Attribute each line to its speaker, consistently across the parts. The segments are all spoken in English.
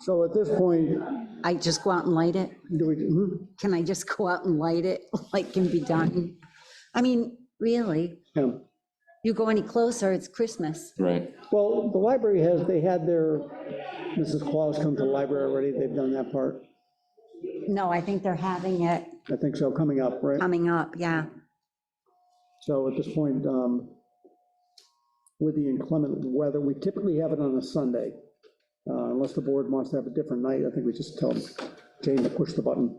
Speaker 1: So at this point,
Speaker 2: I just go out and light it?
Speaker 1: do we, hmm?
Speaker 2: Can I just go out and light it, like can be done? I mean, really,
Speaker 1: yeah.
Speaker 2: you go any closer, it's Christmas.
Speaker 3: Right.
Speaker 1: Well, the library has, they had their, Mrs. Claus come to the library already, they've done that part.
Speaker 2: No, I think they're having it
Speaker 1: I think so, coming up, right?
Speaker 4: Um,
Speaker 2: coming up, yeah.
Speaker 1: So at this point, um, with the inclement weather, we typically have it on a Sunday. Uh, Unless the board wants to have a different night, I think we just tell Jane to push the button.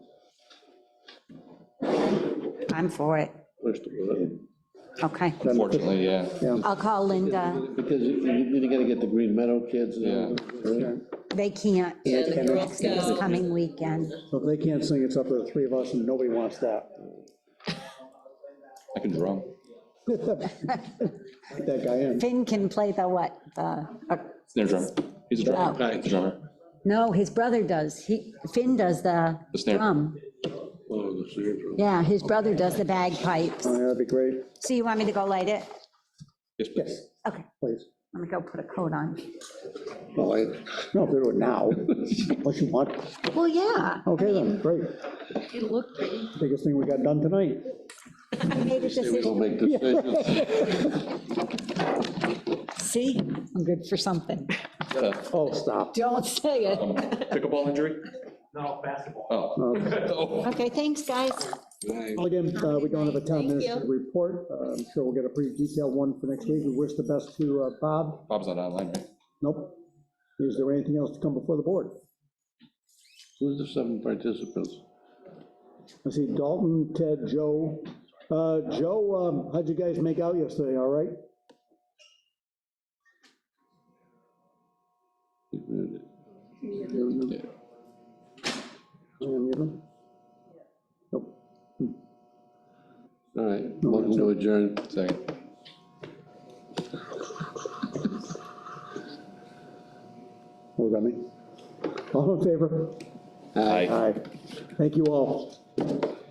Speaker 2: I'm for it.
Speaker 4: Push the button.
Speaker 2: Okay.
Speaker 3: Unfortunately, yeah.
Speaker 1: Yeah.
Speaker 2: I'll call Linda.
Speaker 4: Because you- you gotta get the Green Meadow kids. and all
Speaker 3: Yeah.
Speaker 4: that, right?
Speaker 2: They can't
Speaker 5: Yeah, the Girl
Speaker 2: this
Speaker 5: Scout.
Speaker 2: coming weekend.
Speaker 1: So if they can't sing, it's up to the three of us, and nobody wants that.
Speaker 3: I can drum.
Speaker 1: Like that guy in.
Speaker 2: Finn can play the what? The, uh,
Speaker 3: Snare drummer. He's a drummer. He's a drummer.
Speaker 2: no, his brother does. He, Finn does the
Speaker 3: The snare.
Speaker 2: drum.
Speaker 4: Oh, the seniors.
Speaker 2: Yeah, his brother does the bagpipes.
Speaker 1: Oh, yeah, That'd be great.
Speaker 2: So you want me to go light it?
Speaker 3: Yes, please.
Speaker 1: Yes,
Speaker 2: Okay,
Speaker 1: please.
Speaker 2: let me go put a coat on.
Speaker 4: Well, I-
Speaker 1: No, if they do it now, unless you want.
Speaker 2: Well, yeah.
Speaker 1: Okay, then, great.
Speaker 5: It looked pretty.
Speaker 1: Biggest thing we got done tonight.
Speaker 2: I made a
Speaker 4: We don't
Speaker 2: decision.
Speaker 4: make decisions.
Speaker 2: See, I'm good for something.
Speaker 3: Uh,
Speaker 1: Oh, stop.
Speaker 2: Don't say it.
Speaker 3: um, Pickleball injury?
Speaker 6: No, basketball.
Speaker 3: Oh.
Speaker 1: Okay.
Speaker 3: Oh.
Speaker 2: Okay, thanks, guys.
Speaker 1: Well, Again, uh, we don't have a town
Speaker 5: Thank you.
Speaker 1: minister report. Uh, I'm sure we'll get a pretty detailed one for next week. We wish the best to uh, Bob.
Speaker 3: Bob's not online, right?
Speaker 1: Nope. Is there anything else to come before the board?
Speaker 4: Who's the seven participants?
Speaker 1: I see Dalton, Ted, Joe. Uh, Joe, um, how'd you guys make out yesterday, all right?
Speaker 4: Yeah.
Speaker 1: Anyone need them? Nope.
Speaker 4: All right, welcome to adjourn.
Speaker 3: Second.
Speaker 1: What was that mean? All in favor?
Speaker 4: Aye.
Speaker 1: Aye. Thank you all.